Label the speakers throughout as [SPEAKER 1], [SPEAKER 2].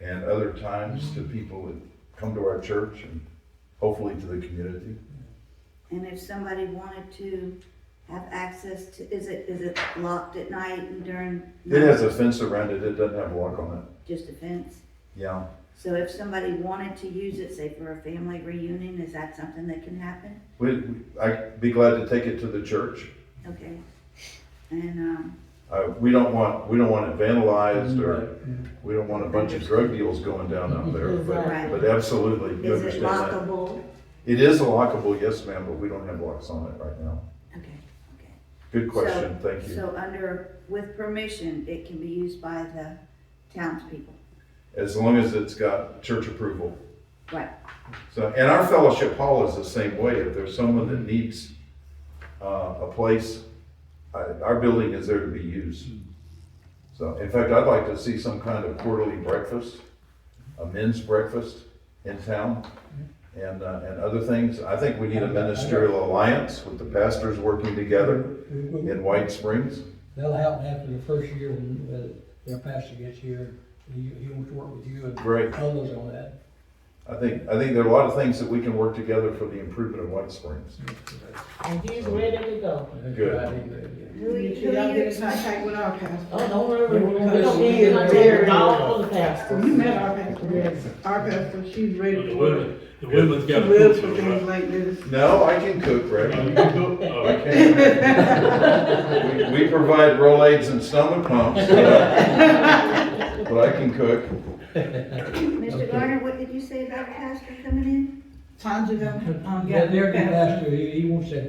[SPEAKER 1] and other times to people that come to our church and hopefully to the community.
[SPEAKER 2] And if somebody wanted to have access to, is it, is it locked at night and during?
[SPEAKER 1] It has a fence around it, it doesn't have a lock on it.
[SPEAKER 2] Just a fence?
[SPEAKER 1] Yeah,
[SPEAKER 2] So if somebody wanted to use it, say for a family reunion, is that something that can happen?
[SPEAKER 1] we, we- I'd be glad to take it to the church.
[SPEAKER 2] Okay. And, um,
[SPEAKER 1] Uh, we don't want, we don't want it vandalized or, we don't want a bunch of drug deals going down out there, but,
[SPEAKER 2] Right.
[SPEAKER 1] but absolutely, you
[SPEAKER 2] is it
[SPEAKER 1] understand that.
[SPEAKER 2] lockable?
[SPEAKER 1] It is a lockable, yes ma'am, but we don't have locks on it right now.
[SPEAKER 2] Okay, okay.
[SPEAKER 1] Good question, thank you.
[SPEAKER 2] So under, with permission, it can be used by the townspeople.
[SPEAKER 1] As long as it's got church approval.
[SPEAKER 2] Right,
[SPEAKER 1] So, and our fellowship hall is the same way. If there's someone that needs uh, a place, I- our building is there to be used. So, in fact, I'd like to see some kind of quarterly breakfast, a men's breakfast in town, and, uh, and other things. I think we need a ministerial alliance with the pastors working together in White Springs.
[SPEAKER 3] That'll happen after the first year when uh, their pastor gets here, he, he wants to work with you and
[SPEAKER 1] Great.
[SPEAKER 3] others on that.
[SPEAKER 1] I think, I think there are a lot of things that we can work together for the improvement of White Springs.
[SPEAKER 4] And he's ready to go.
[SPEAKER 3] Good.
[SPEAKER 2] Who you-
[SPEAKER 5] Y'all
[SPEAKER 2] who
[SPEAKER 5] get
[SPEAKER 2] you-
[SPEAKER 5] in contact with our pastor.
[SPEAKER 4] Oh, don't worry, we
[SPEAKER 5] Because
[SPEAKER 4] don't
[SPEAKER 5] she
[SPEAKER 4] need to
[SPEAKER 5] is
[SPEAKER 4] contact
[SPEAKER 5] very-
[SPEAKER 4] all the pastors.
[SPEAKER 5] You met our pastor.
[SPEAKER 4] Yes.
[SPEAKER 5] Our pastor, she's
[SPEAKER 6] The
[SPEAKER 5] ready to work.
[SPEAKER 6] women, the women's
[SPEAKER 5] She
[SPEAKER 6] got to cook
[SPEAKER 5] lives
[SPEAKER 6] for
[SPEAKER 5] for
[SPEAKER 6] the
[SPEAKER 5] things
[SPEAKER 6] right.
[SPEAKER 5] like this.
[SPEAKER 1] No, I can cook, Rick.
[SPEAKER 6] Oh, you can cook? Oh,
[SPEAKER 1] I can. We- We provide Rolaids and stomach pumps, but I can cook.
[SPEAKER 2] Mr. Garner, what did you say about a pastor coming in?
[SPEAKER 5] Tangela, um,
[SPEAKER 3] Yeah,
[SPEAKER 5] got
[SPEAKER 3] their
[SPEAKER 5] the pastor.
[SPEAKER 3] pastor, he, he wants to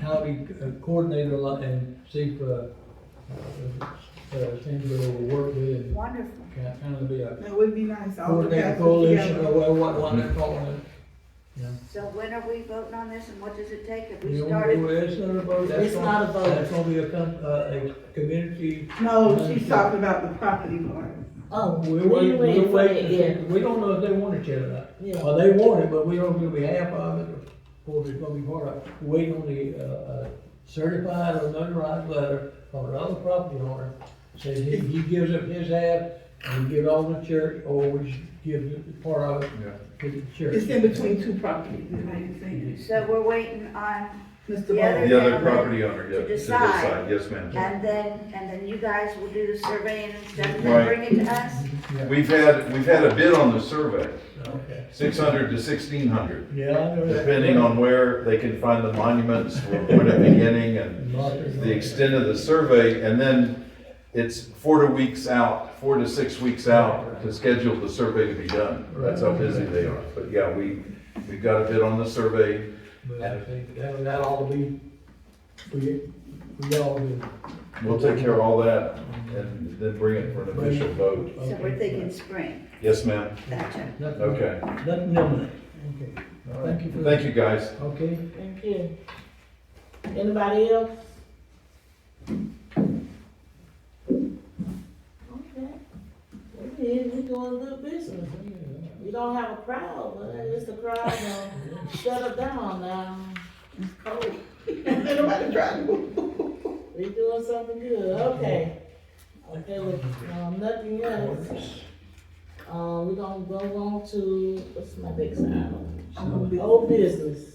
[SPEAKER 3] kind of be a coordinator a lot and see if, uh, uh, uh, things that will work with and
[SPEAKER 2] Wonderful.
[SPEAKER 3] kind kind of be a
[SPEAKER 5] It would be nice, all the
[SPEAKER 3] coordinator
[SPEAKER 5] pastors
[SPEAKER 3] coalition or
[SPEAKER 5] together.
[SPEAKER 3] what, what, what they're calling it.
[SPEAKER 2] So when are we voting on this and what does it take? Have
[SPEAKER 3] You
[SPEAKER 2] we
[SPEAKER 3] know,
[SPEAKER 2] started?
[SPEAKER 3] It's not a vote, that's
[SPEAKER 4] It's
[SPEAKER 3] gonna-
[SPEAKER 4] not a vote.
[SPEAKER 3] That's gonna be a, com- uh, a community
[SPEAKER 5] No, she's talking about the property part.
[SPEAKER 4] Oh,
[SPEAKER 3] We
[SPEAKER 4] we
[SPEAKER 3] wait,
[SPEAKER 4] wait,
[SPEAKER 3] we
[SPEAKER 4] waiting for
[SPEAKER 3] wait,
[SPEAKER 4] that,
[SPEAKER 3] to
[SPEAKER 4] yeah.
[SPEAKER 3] see. we don't know if they want it yet or not.
[SPEAKER 4] Yeah.
[SPEAKER 3] Well, they want it, but we don't know if we have of it, or if it's gonna be part of, it. waiting on the, uh, uh, certified or notarized letter from another property owner. Says he, he gives up his half, and we give it all to the church, or we just give the part of it to the church.
[SPEAKER 5] It's in between two properties, is what you're saying.
[SPEAKER 2] So we're waiting on,
[SPEAKER 5] Mr.
[SPEAKER 2] Yeah,
[SPEAKER 5] Bowles.
[SPEAKER 1] The other property owner, yeah, to
[SPEAKER 2] decide.
[SPEAKER 1] decide, yes, ma'am.
[SPEAKER 2] and then, and then you guys will do the surveying and stuff
[SPEAKER 1] Right.
[SPEAKER 2] and then bring it to us?
[SPEAKER 1] We've had, we've had a bid on the survey,
[SPEAKER 3] Okay.
[SPEAKER 1] six hundred to sixteen hundred,
[SPEAKER 3] Yeah, I know that.
[SPEAKER 1] depending on where they can find the monuments, or point of beginning, and the extent of the survey, and then it's four to weeks out, four to six weeks out to schedule the survey to be done. That's how busy they are. But yeah, we, we've got a bid on the survey,
[SPEAKER 3] But I think that, that ought to be, we, we all do.
[SPEAKER 1] We'll take care of all that and then bring it for an official vote.
[SPEAKER 2] So we're thinking spring.
[SPEAKER 1] Yes, ma'am?
[SPEAKER 2] Gotcha.
[SPEAKER 3] Nothing,
[SPEAKER 1] Okay.
[SPEAKER 3] nothing imminent. Okay.
[SPEAKER 1] All right.
[SPEAKER 3] Thank you for-
[SPEAKER 1] Thank you, guys.
[SPEAKER 3] Okay,
[SPEAKER 4] Thank you. Anybody else? Okay. We here, we doing good business. We don't have a crowd, but it's the crowd, uh, shut it down now. It's cold.
[SPEAKER 5] Ain't Nobody trying to.
[SPEAKER 4] We doing something good, okay. Okay, with, um, nothing else. Uh, we gonna go on to, what's my next item? Old business.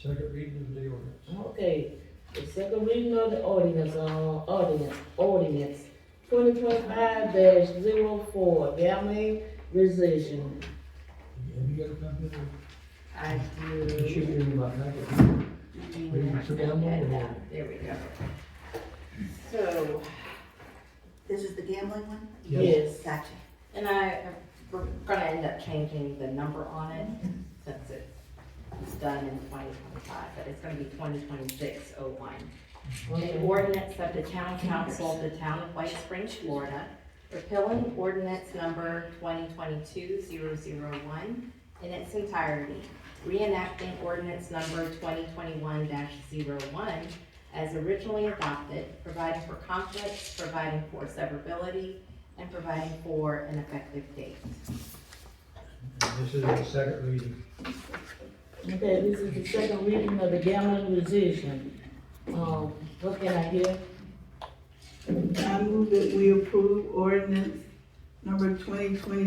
[SPEAKER 3] second reading of the ordinance.
[SPEAKER 4] Okay, the second reading of the ordinance, uh, ordinance, ordinance, twenty twenty-five dash zero four, gambling rescission.
[SPEAKER 3] Have you got a copy of it?
[SPEAKER 4] I
[SPEAKER 3] It should be
[SPEAKER 4] do.
[SPEAKER 3] in my packet.
[SPEAKER 2] Hang
[SPEAKER 3] Should be
[SPEAKER 2] on,
[SPEAKER 3] on
[SPEAKER 2] I
[SPEAKER 3] my-
[SPEAKER 2] got that. There we go.
[SPEAKER 7] So,
[SPEAKER 2] This is the gambling one?
[SPEAKER 3] Yes.
[SPEAKER 4] Yes,
[SPEAKER 2] Gotcha.
[SPEAKER 7] and I, we're gonna end up changing the number on it since it's done in twenty twenty-five, but it's gonna be twenty twenty-six oh one. An
[SPEAKER 4] okay,
[SPEAKER 7] ordinance of the town council of the town of White Springs, Florida, repealing ordinance number 2022-001 in its entirety, reenacting ordinance number twenty twenty-one one as originally adopted, providing for conflicts, providing for severability, and providing for an effective date.
[SPEAKER 3] This is the second reading.
[SPEAKER 4] okay, this is the second reading of the gambling rescission. Um, what can I hear?
[SPEAKER 5] I move that we approve ordinance number twenty twenty